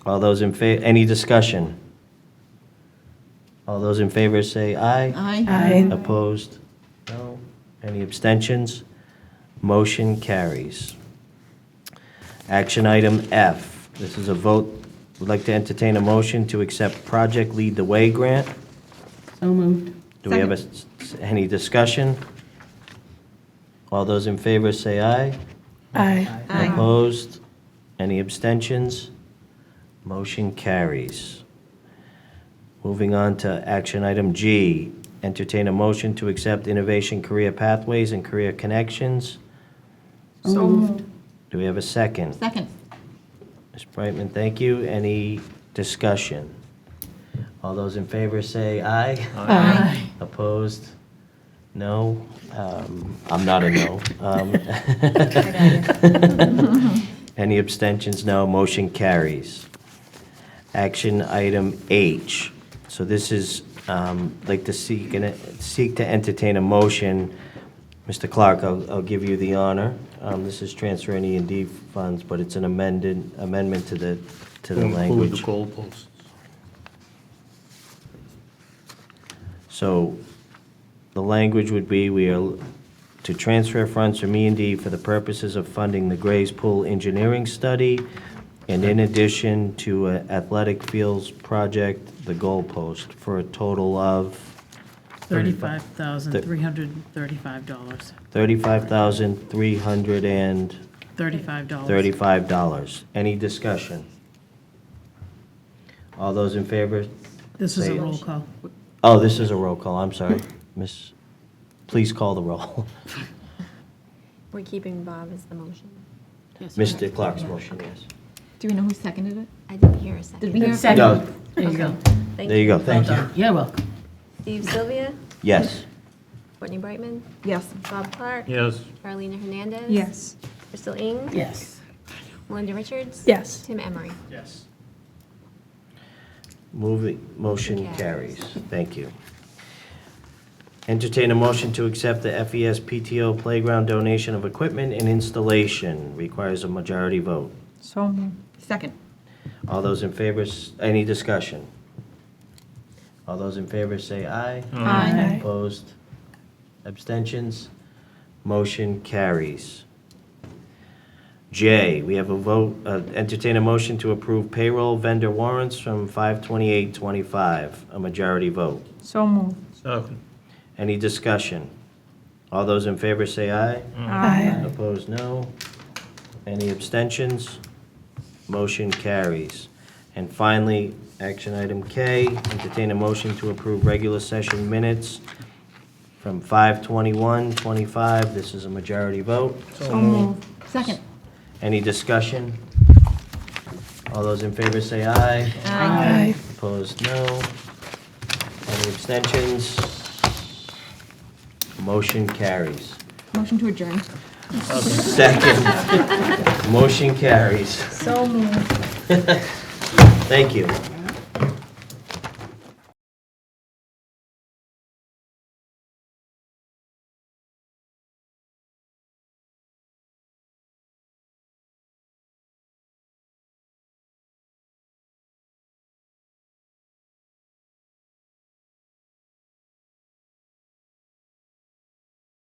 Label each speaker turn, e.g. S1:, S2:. S1: All those in fa, any discussion? All those in favor say aye.
S2: Aye.
S3: Aye.
S1: Opposed? No. Any abstentions? Motion carries. Action item F. This is a vote, would like to entertain a motion to accept Project Lead the Way grant.
S3: So moved.
S1: Do we have a s- s- any discussion? All those in favor say aye.
S3: Aye.
S2: Aye.
S1: Opposed? Any abstentions? Motion carries. Moving on to action item G, entertain a motion to accept Innovation Career Pathways and Career Connections.
S3: So moved.
S1: Do we have a second?
S2: Second.
S1: Ms. Brightman, thank you. Any discussion? All those in favor say aye.
S3: Aye.
S1: Opposed? No? Um, I'm not a no. Um, Any abstentions? No. Motion carries. Action item H. So this is, um, like to seek, an- seek to entertain a motion. Mr. Clark, I'll, I'll give you the honor. Um, This is transfer any and D funds, but it's an amended, amendment to the, to the
S4: Include the
S1: language.
S4: goalposts.
S1: So the language would be, we are to transfer funds from E and D for the purposes of funding the Gray's Pool Engineering Study, and in addition to a athletic fields project, the goalpost, for a total of
S5: $35,335.
S1: $35,335.
S5: $35.
S1: Any discussion? All those in favor?
S5: This is
S1: say-
S5: a roll call.
S1: Oh, this is a roll call, I'm sorry. Miss, please call the roll.
S6: We're keeping Bob as the motion.
S1: Mr. Clark's motion, yes.
S2: Do we know who seconded it?
S6: I didn't hear a second.
S2: Did we hear?
S3: Second.
S1: No,
S3: There you go.
S6: Thank
S1: there you go, thank you.
S3: You're welcome.
S6: Steve Sylvia,
S1: Yes.
S6: Courtney Brightman,
S2: Yes.
S6: Bob Clark,
S4: Yes,
S6: Carolina Hernandez.
S3: Yes.
S6: Crystal Ing,
S3: Yes.
S6: Melinda Richards.
S3: Yes.
S6: Tim Emery.
S1: Moving, motion
S6: Motion
S1: carries.
S6: carries.
S1: Thank you. Entertain a motion to accept the E FES PTO playground donation of equipment and installation. Requires a majority vote.
S2: So Second.
S1: All those in favor, s- any discussion? All those in favor say aye.
S3: Aye.
S1: Opposed? Abstentions? Motion carries. J, we have a vote, uh, entertain a motion to approve payroll vendor warrants from 52825, a majority vote.
S2: So moved.
S4: second.
S1: Any discussion? All those in favor say aye.
S3: Aye.
S1: Opposed, no. Any abstentions? Motion carries. And finally, action item K, entertain a motion to approve regular session minutes from 5:21:25. This is a majority vote.
S4: So moved.
S2: Second.
S1: Any discussion? All those in favor say aye.
S3: Aye.
S1: Opposed, no. Any abstentions? Motion carries.
S2: Motion to adjourn.
S1: Second. Motion carries.
S2: So moved.
S1: Thank you.